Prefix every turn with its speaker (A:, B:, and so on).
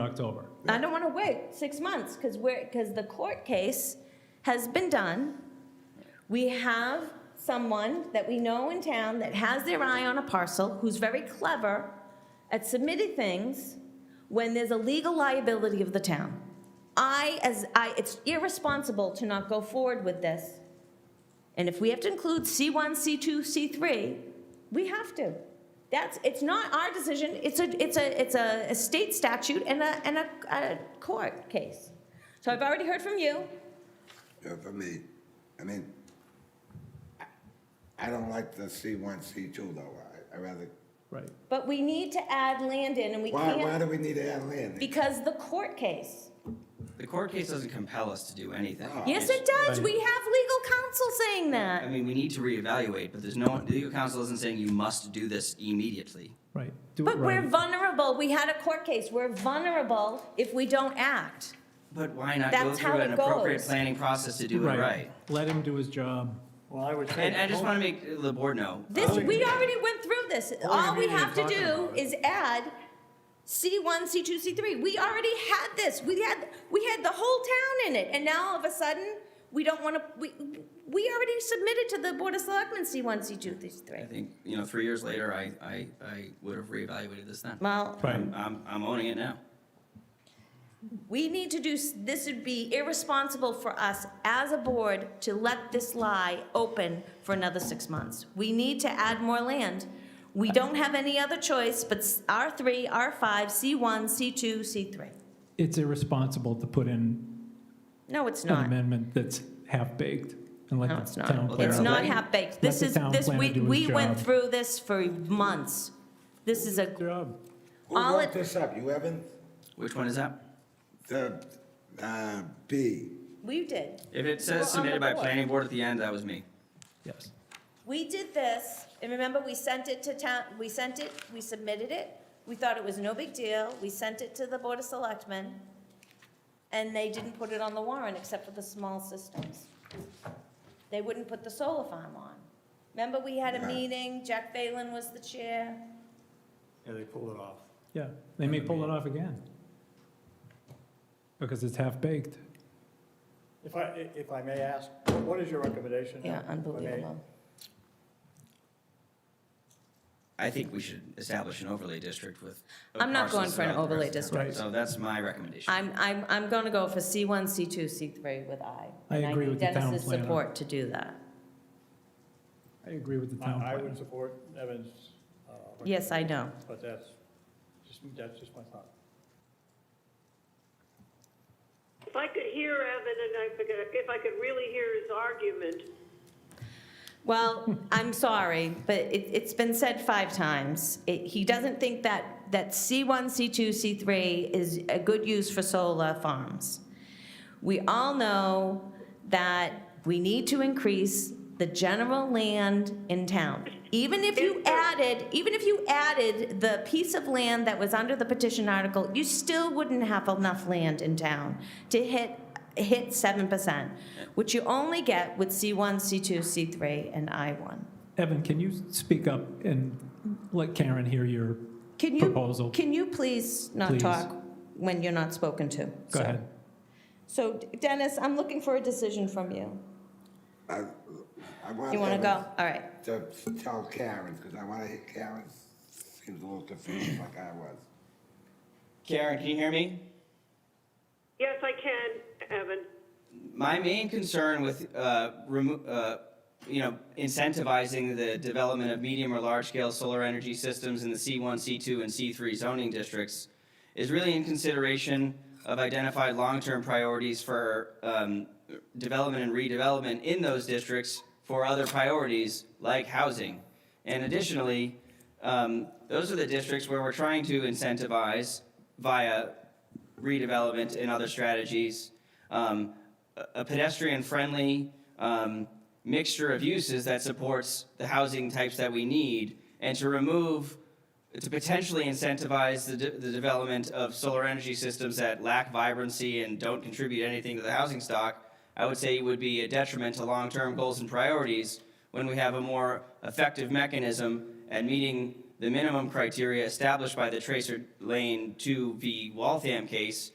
A: October.
B: I don't want to wait six months because we're, because the court case has been done. We have someone that we know in town that has their eye on a parcel, who's very clever at submitting things when there's a legal liability of the town. I, as, I, it's irresponsible to not go forward with this. And if we have to include C1, C2, C3, we have to. That's, it's not our decision, it's a, it's a, it's a a state statute and a, and a, a court case. So I've already heard from you.
C: Yeah, for me, I mean, I- I don't like the C one, C two though, I, I rather,
A: Right.
B: But we need to add land in, and we
C: why, why
B: can't,
C: do we need to add land?
B: because the court case.
D: The court case doesn't compel us to do anything.
B: Yes, it
D: It's-
B: does,
A: Right.
B: we have legal counsel saying
D: I
B: that.
D: mean, we need to reevaluate, but there's no, the legal counsel isn't saying you must do this immediately.
A: Right. Do it
B: But we're
A: right.
B: vulnerable, we had a court case, we're vulnerable if we don't act.
D: But why not go
B: That's how
D: through an
B: it
D: appropriate
B: goes.
D: planning process to do it right?
A: Let him do his job.
E: Well, I would say.
D: And I just want to make the board know,
B: This,
E: Oh,
B: we already went through this.
E: Oh,
B: All
E: you
B: we
E: mean
B: have to
E: you're talking
B: do
E: about it.
B: is add C1, C2, C3. We already had this. We had, we had the whole town in it, and now all of a sudden, we don't want to, we, we already submitted to the Board of Selectmen C1, C2,
D: I
B: C3.
D: think, you know, three years later, I, I, I would have reevaluated this then.
B: Well,
A: Right.
D: I'm, I'm- I'm owning it now.
B: we need to do, s- this would be irresponsible for us as a board to let this lie open for another six months. We need to add more land. We don't have any other choice but s- R3, R5, C1, C2, C3.
A: It's irresponsible to put in
B: No, it's
A: an
B: not.
A: amendment that's half-baked and let
B: No,
A: the
B: it's not.
A: town
D: clear
B: It's
D: up.
A: clear
B: not
A: out.
D: Let-
B: half-baked.
A: let
B: This
A: the
B: is,
A: town
B: this,
A: planner
B: we,
A: do his
B: we went
A: job.
B: through this for months. This is a,
A: Job.
C: Who
B: all
C: wrote
B: it-
C: this up, you haven't?
D: Which one is that?
C: The, uh, B,
B: we did.
D: If it
B: Well, on the
D: says submitted by
B: board.
D: planning board at the end, that was me.
A: Yes.
B: We did this, and remember, we sent it to town, we sent it, we submitted it. We thought it was no big deal. We sent it to the Board of Selectmen, and they didn't put it on the warrant except for the small systems. They wouldn't put the solar farm on. Remember, we had a
C: Right.
B: meeting, Jack Phelan was the chair.
E: Yeah, they pulled it off.
A: Yeah, they may pull it off again. Because it's half-baked.
E: If I, if I may ask, what is your recommendation?
B: Yeah,
E: if I may?
B: unbelievable.
D: I think we should establish an overlay district with.
B: I'm not going for an
D: parcels throughout the
B: overlay
D: rest of
A: district.
D: the town. So that's my recommendation.
B: I'm, I'm, I'm going to go for C1, C2, C3 with I.
A: I
B: and
A: agree
B: need
A: with the town
B: Dennis's
A: planner.
B: support to do that.
A: I agree with the town
E: I, I
A: planner.
E: would support Evan's. uh,
B: Yes, I know.
E: recommendation, But that's, just, that's just my thought.
F: If I could hear Evan and I forget, if I could really hear his argument,
B: Well, I'm sorry, but it, it's been said five times. It, he doesn't think that, that C1, C2, C3 is a good use for solar farms. We all know that we need to increase the general land in town. Even if you added, even if you added the piece of land that was under the petition article, you still wouldn't have enough land in town to hit, hit seven percent, which you only get with C one, C two, C three, and I one.
A: Evan, can you speak up and let Karen hear your,
B: Can
A: Proposal.
B: you, can you please not
A: Please.
B: talk when you're not spoken to?
A: go
B: So-
A: ahead.
B: So Dennis, I'm looking for a decision from you.
C: I, I want.
B: You wanna
C: Evan
B: go? All right.
C: To tell Karen, because I wanna hear Karen, seems a little confused like I was.
D: Karen, can you hear me?
F: yes, I can, Evan.
D: My main concern with, uh, remo- uh, you know, incentivizing the development of medium or large-scale solar energy systems in the C1, C2, and C3 zoning districts is really in consideration of identified long-term priorities for um, development and redevelopment in those districts for other priorities like housing. And additionally, um, those are the districts where we're trying to incentivize via redevelopment and other strategies, um, a- a pedestrian-friendly um, mixture of uses that supports the housing types that we need, and to remove, to potentially incentivize the, de- the development of solar energy systems that lack vibrancy and don't contribute anything to the housing stock, I would say would be a detriment to long-term goals and priorities when we have a more effective mechanism at meeting the minimum criteria established by the Tracer Lane 2v Waltham case